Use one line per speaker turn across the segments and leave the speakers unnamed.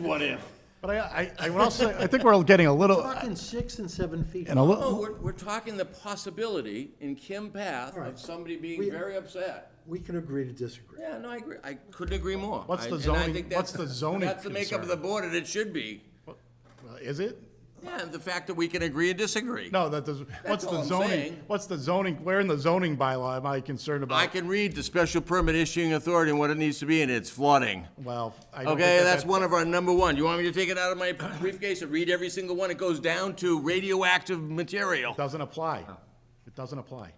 What if?
But I, I, I would also, say- I think we're getting a little,
Talking six and seven feet.
and a
No,
little,
Oh, we're, we're talking the possibility in Kim Path of somebody being
We-
very upset.
We can agree to disagree.
Yeah, no, I agree. I couldn't agree more.
What's
I-
the
and I
zoning-
think
what's
that's-
the zoning
That's the makeup of the
concern?
board, and it should be.
is it?
Yeah, the fact that we can agree and disagree.
No, that does, what's
all
the
I'm
zoning,
saying.
what's the zoning, where in the zoning bylaw am I concerned
I
about?
can read the special permit issuing authority and what it needs to be, and it's flooding.
Well, I don't think
Okay,
that
that's
that-
one of our number one. You want me to take it out of my briefcase and read every single one? It goes down to radioactive material.
Doesn't apply. It doesn't apply,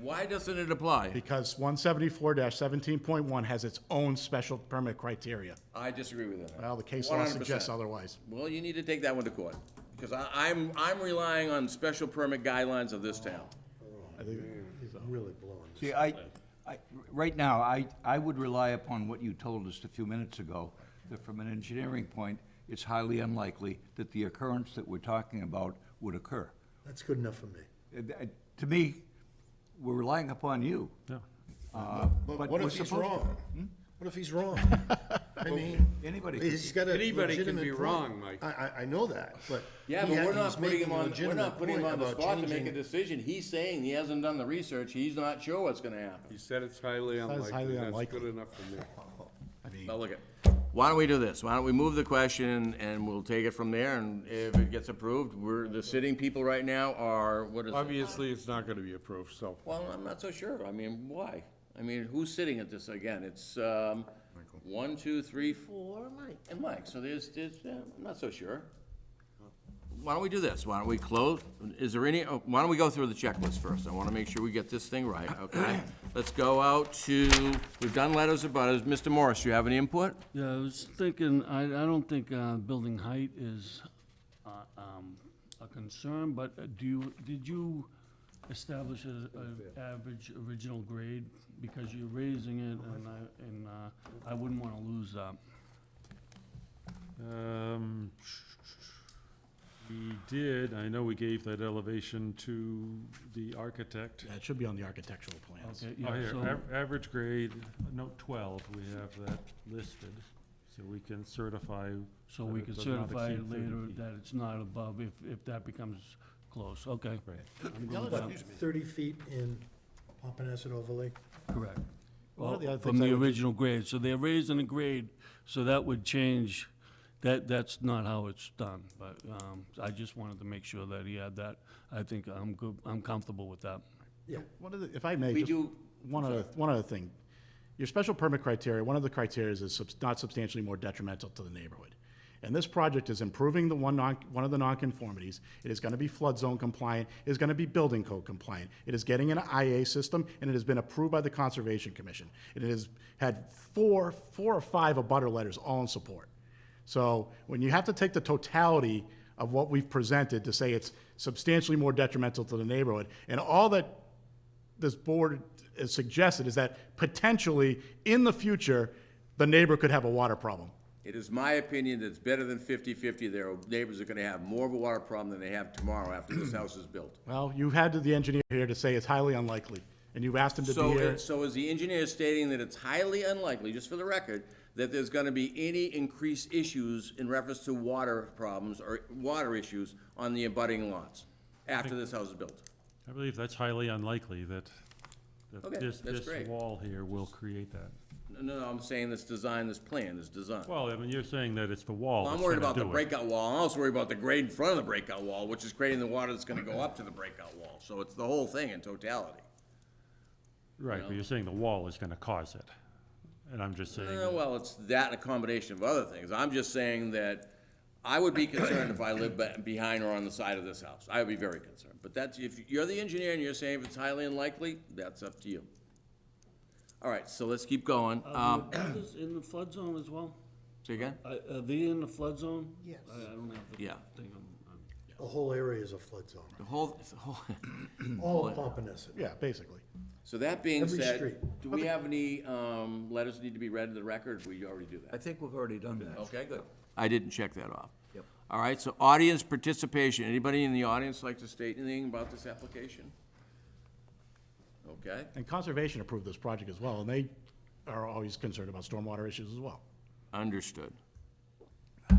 Why doesn't it apply?
because one seventy-four seventeen point one has its own special permit criteria.
I disagree with that.
Well, the case law suggests
100%.
otherwise.
Well, you need to take that one to court, because I, I'm, I'm relying on special permit guidelines of this town.
He's really blowing.
See, I, I, right now, I, I would rely upon what you told us a few minutes ago, that from an engineering point, it's highly unlikely that the occurrence that we're talking about would occur.
That's good enough for me.
Uh, th- To me, we're relying upon you. Uh, But
What
we're
if he's
supposed-
wrong?
Hmm?
What if he's wrong? I mean,
Anybody could
he's got a
Anybody can
legitimate
be
point.
wrong, Mike.
I, I, I know that, but.
Yeah,
he
but
had-
we're
he's
not putting
making
him
a
on, we're
legitimate
not putting him
point
on the
about
spot to make
changing-
a decision. He's saying he hasn't done the research, he's not sure what's gonna happen.
You said it's highly
highly
unlikely, that's
unlikely.
good enough for me.
Now, look at, why don't we do this? Why don't we move the question and we'll take it from there, and if it gets approved, we're, the sitting people right now are, what is it?
Obviously, it's not gonna be approved, so.
Well, I'm not so sure. I mean, why? I mean, who's sitting at this again? It's, um, one, two, three, four, Mike, and Mike, so there's, there's, uh, I'm not so sure. Why don't we do this? Why don't we close, is there any, oh, why don't we go through the checklist first? I wanna make sure we get this thing right, okay? Let's go out to, we've done letters of butters. Mr. Morris, you have any input?
Yeah, I was thinking, I, I don't think, uh, building height is, uh, um, a concern, but uh, do you, did you establish a, a average original grade? Because you're raising it and I, and, uh, I wouldn't wanna lose that.
Um, We did, I know we gave that elevation to the architect.
Yeah, It should be on the architectural plans.
Okay,
Oh,
yeah,
here,
so,
av- average grade, note twelve, we have that listed, so we can certify.
so
that
we
it
could
does not
certify
exceed
it
30
later
feet.
that it's not above if, if that becomes close, okay.
Right.
I'm good with that.
Thirty feet in Pompanesett overlay.
Correct.
One of the other
From
things I
the
would-
original grade, so they're raising the grade, so that would change, that, that's not how it's done, but, um, I just wanted to make sure that he had that. I think I'm good, I'm comfortable with that.
Yeah.
One of the, if I may,
We
just
do-
one other, one other thing. Your special permit criteria, one of the criteria is subs- not substantially more detrimental to the neighborhood. And this project is improving the one non, one of the nonconformities. It is gonna be flood zone compliant, it is gonna be building code compliant. It is getting an IA system, and it has been approved by the Conservation Commission. And it has had four, four or five abutter letters, all in support. So when you have to take the totality of what we've presented to say it's substantially more detrimental to the neighborhood, and all that this board has suggested is that potentially, in the future, the neighbor could have a water problem.
It is my opinion that it's better than 50/50. Their neighbors are gonna have more of a water problem than they have tomorrow after this house is built.
Well, you had the engineer here to say it's highly unlikely, and you've asked him to
So,
be here.
it- so is the engineer stating that it's highly unlikely, just for the record, that there's gonna be any increased issues in reference to water problems or water issues on the abutting lots after this house is built?
I believe that's highly unlikely that,
Okay,
that this,
that's
this
great.
wall here will create that.
No, no, no, I'm saying this design, this plan, this design.
Well, I mean, you're saying that it's the wall
Well, I'm
that's
worried
gonna
about the
do it.
breakout wall, I'm also worried about the grade in front of the breakout wall, which is creating the water that's gonna go up to the breakout wall. So it's the whole thing in totality.
Right, but you're saying the wall is gonna cause it, and I'm just saying.
Eh, well, it's that and a combination of other things. I'm just saying that I would be concerned if I lived be- behind or on the side of this house. I would be very concerned. But that's, if you're the engineer and you're saying if it's highly unlikely, that's up to you. All right, so let's keep going.
Uh,
Um,
in the flood zone as well?
say again?
Are they in the flood zone?
Yes.
I don't have the
Yeah.
thing
The whole area is a flood zone.
The whole, the whole, Hmm.
All of Pompanesett.
Yeah, basically.
so that being
Every
said,
street.
do we have any, um, letters need to be read to the record? We already do that.
I think we've already done that.
Okay, good. I didn't check that off. Yep. All right, so audience participation. Anybody in the audience like to state anything about this application? Okay,
And Conservation approved this project as well, and they are always concerned about stormwater issues as well.
understood.